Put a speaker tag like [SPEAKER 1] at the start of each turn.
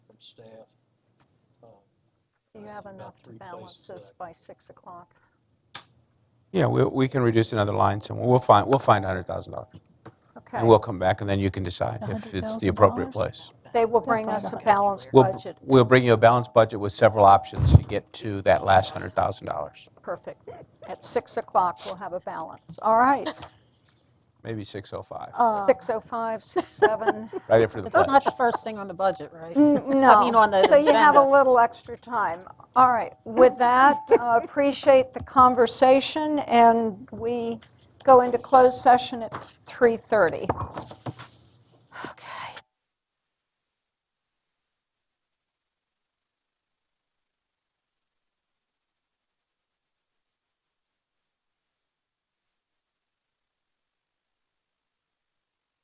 [SPEAKER 1] staff. uh,
[SPEAKER 2] You
[SPEAKER 1] there's
[SPEAKER 2] have
[SPEAKER 1] about
[SPEAKER 2] enough to
[SPEAKER 1] three
[SPEAKER 2] balance
[SPEAKER 1] places that I
[SPEAKER 2] this by 6 o'clock.
[SPEAKER 3] Yeah, we, we can reduce another line somewhere. We'll find, we'll find $100,000.
[SPEAKER 2] Okay.
[SPEAKER 3] And we'll come back, and then you can decide if it's the appropriate
[SPEAKER 4] $100,000?
[SPEAKER 3] place.
[SPEAKER 2] They will bring
[SPEAKER 4] find
[SPEAKER 2] us a
[SPEAKER 4] out
[SPEAKER 2] balanced
[SPEAKER 3] We'll,
[SPEAKER 2] budget.
[SPEAKER 3] we'll bring you a balanced budget with several options to get to that last $100,000.
[SPEAKER 2] Perfect. At 6 o'clock, we'll have a balance. All right.
[SPEAKER 3] Maybe 605,
[SPEAKER 1] Uh,
[SPEAKER 2] 6:05, 6:07.
[SPEAKER 3] right after the
[SPEAKER 5] It's Oh.
[SPEAKER 3] pledge.
[SPEAKER 5] not the first thing on the budget, right?
[SPEAKER 2] No.
[SPEAKER 5] mean, on the
[SPEAKER 2] Oh, So you have a
[SPEAKER 5] agenda.
[SPEAKER 2] little extra time. All right. With that, uh, appreciate the conversation, and we go into closed session at 3:30.